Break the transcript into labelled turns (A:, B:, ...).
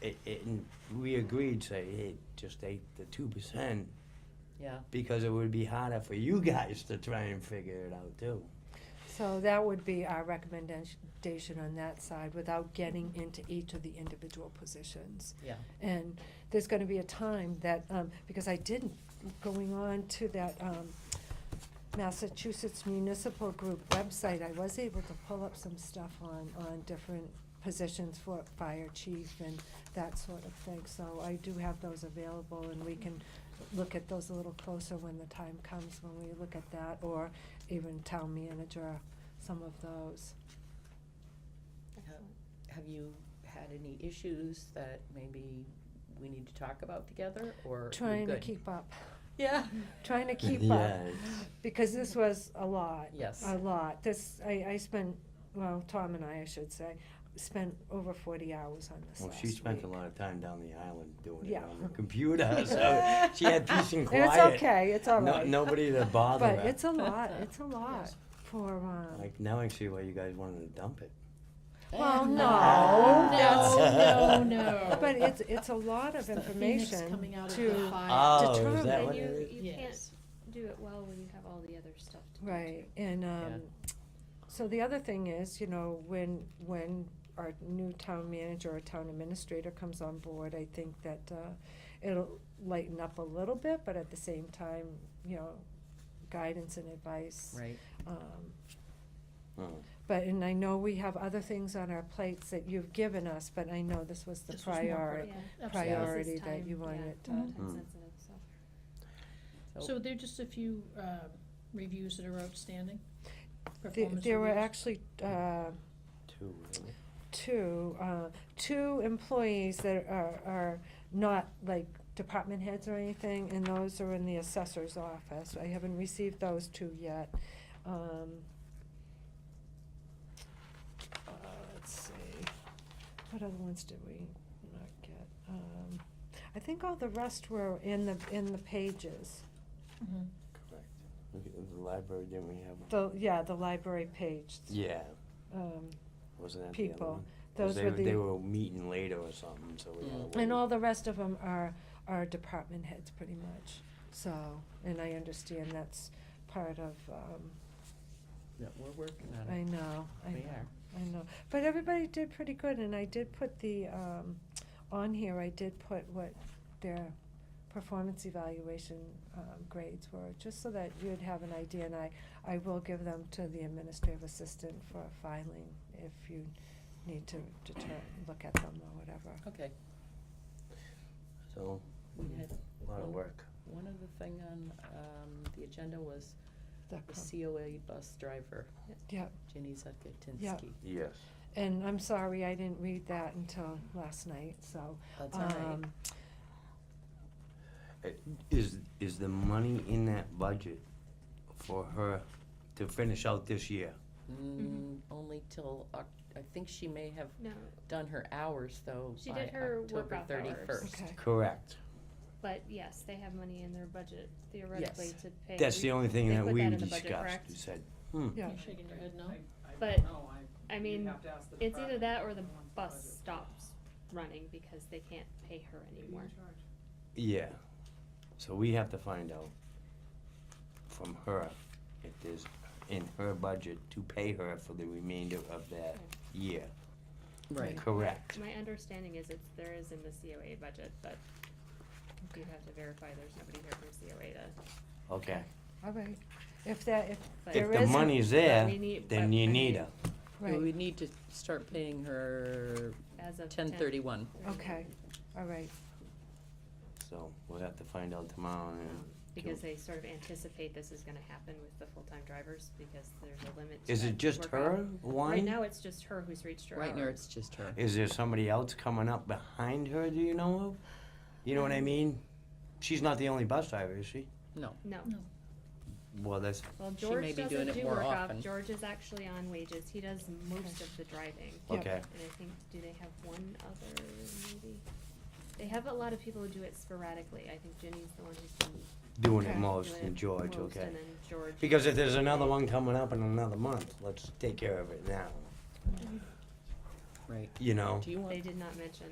A: it, it, and we agreed, say, hey, just take the two percent,
B: yeah.
A: because it would be harder for you guys to try and figure it out too.
C: So that would be our recommendation on that side, without getting into each of the individual positions.
B: Yeah.
C: And there's gonna be a time that, um, because I didn't, going on to that, um, Massachusetts Municipal Group website, I was able to pull up some stuff on, on different positions for fire chief and that sort of thing. So I do have those available and we can look at those a little closer when the time comes, when we look at that, or even town manager, some of those.
B: Have you had any issues that maybe we need to talk about together, or you're
C: Trying to
B: good?
C: keep up,
B: Yeah.
C: trying to keep up,
A: Yeah, it's-
C: because this was a lot.
B: Yes.
C: A lot. This, I, I spent, well, Tom and I, I should say, spent over forty hours on this
A: Well,
C: last
A: she spent a
C: week.
A: lot of time down the island doing it
C: Yeah.
A: on the computer, so she had peace and quiet.
C: It's okay, it's all
A: No-
C: right.
A: Nobody to bother
C: But
A: her.
C: it's a lot, it's a lot
B: Yes.
C: for, um,
A: Like, now I see why you guys wanted to dump it.
C: well, no,
B: Ah.
C: that's.
B: No, no, no.
C: But it's, it's a lot
D: It's
C: of
D: the phoenix
C: information
D: coming out of the
C: to,
D: fire.
A: Oh, is
C: Determine
A: that
C: Then
A: what it
E: you,
A: is?
E: you can't
D: Yes.
E: do it well when you have all the other stuff to do.
C: right, and, um, so the other thing is, you know, when, when our new town manager or town administrator comes on board, I think that, uh, it'll lighten up a little bit, but at the same time, you know, guidance and advice.
B: Right.
C: Um,
A: Oh.
C: But, and I know we have other things on our plates that you've given us, but I know this was the
D: This was more
C: priority,
E: Yeah.
D: Absolutely.
C: priority
E: This is
C: that
E: time,
C: you
E: yeah.
C: wanted. uh,
D: Mhm.
E: Time
A: Mm.
E: sensitive, so.
D: So there are just a few um, reviews that are outstanding?
C: There,
D: performance
C: there were
D: reviews?
C: actually, uh,
A: Two, really?
C: two, uh, two employees that are, are not like department heads or anything, and those are in the assessor's office. I haven't received those two yet. Um, uh, let's see, what other ones did we not get? Um, I think all the rest were in the, in the pages.
B: Mm-hmm.
D: Mhm.
A: Correct. Look at the library, didn't we have?
C: The, yeah, the library page.
A: Yeah,
C: Um,
A: wasn't that the other
C: People.
A: one? 'Cause
C: those
A: they
C: were
A: were-
C: the.
A: They were meeting later or something, so we had
B: Mm.
A: to
C: And
A: wait.
C: all the rest of them are, are department heads pretty much, so, and I understand that's part of, um,
B: No, we're working on
C: I
B: it.
C: know, I
B: We
C: know,
B: are.
C: I know. But everybody did pretty good, and I did put the, um, on here, I did put what their performance evaluation, um, grades were, just so that you'd have an idea, and I, I will give them to the administrative assistant for filing if you need to deter, look at them or whatever.
B: Okay.
A: So,
B: We had
A: a lot of work.
B: one other thing on um, the agenda was
C: The
B: the
C: com-
B: COA bus driver,
C: Yeah,
B: Ginny Zudkowsky.
C: Yeah.
A: Yes.
C: And I'm sorry, I didn't read that until last night, so.
B: That's all right.
C: um,
A: Is, is the money in that budget for her to finish out this year?
C: mm-hmm.
B: Mm, Only till, Oc- I think she may have
E: No,
B: done her hours though
E: She
B: by
E: did her work
B: October
E: off hours.
B: thirty-first.
C: Okay,
A: Correct.
E: but yes, they have money in their budget theoretically
B: Yes.
E: to pay.
A: That's
E: We-
A: the only thing
E: they
A: that
E: put
A: we
E: that in the budget,
A: discussed.
E: correct?
A: You said,
C: yeah,
D: You're shaking your head no?
E: But,
F: No,
E: I
F: I, you
E: mean,
F: have to ask the
E: it's either
F: department.
E: that or the
F: Everyone's budget.
E: bus stops running because they can't pay her anymore.
A: yeah. So we have to find out from her if there's in her budget to pay her for the remainder of that year.
B: Right.
A: Correct.
E: My understanding is it's, there is in the COA budget, but you'd have to verify there's nobody here from COA to,
A: Okay.
C: all right. If that, if
A: If
E: but.
C: There
A: the
C: is a-
A: money's
E: but
A: there,
E: we need-
A: then
E: but
A: you
E: I
A: need
E: mean,
A: her.
B: We
C: right,
B: would need to start paying her
E: As of
B: ten thirty-one.
C: okay, all right,
A: So we'll have to find out tomorrow and.
E: Because they sort of anticipate this is gonna happen with the full-time drivers, because there's a limit. to
A: Is it
E: that
A: just
E: workload.
A: her
E: Right
A: one?
E: now, it's just her who's reached her
B: Right now,
E: hour.
B: it's just her.
A: Is there somebody else coming up behind her, do you know of? You know what I
E: Um,
A: mean? She's not the only bus driver, is she?
E: No,
A: Well, that's,
E: well,
B: She may
E: George
B: be doing
E: doesn't
B: it
E: do
B: more
E: work off,
B: often.
E: George is actually on wages, he does most of the driving.
C: Yep.
A: okay.
E: And I think, do they have one other, maybe? They have a lot of people who do it sporadically, I think Jenny's the one who's been
A: Doing it
C: Okay.
A: most,
E: doing
A: and
E: it
A: George,
E: most,
A: okay.
E: and then George.
A: Because if there's another one coming up in another month, let's take care of it now,
B: Right.
A: you know?
B: Do you want
E: They did not mention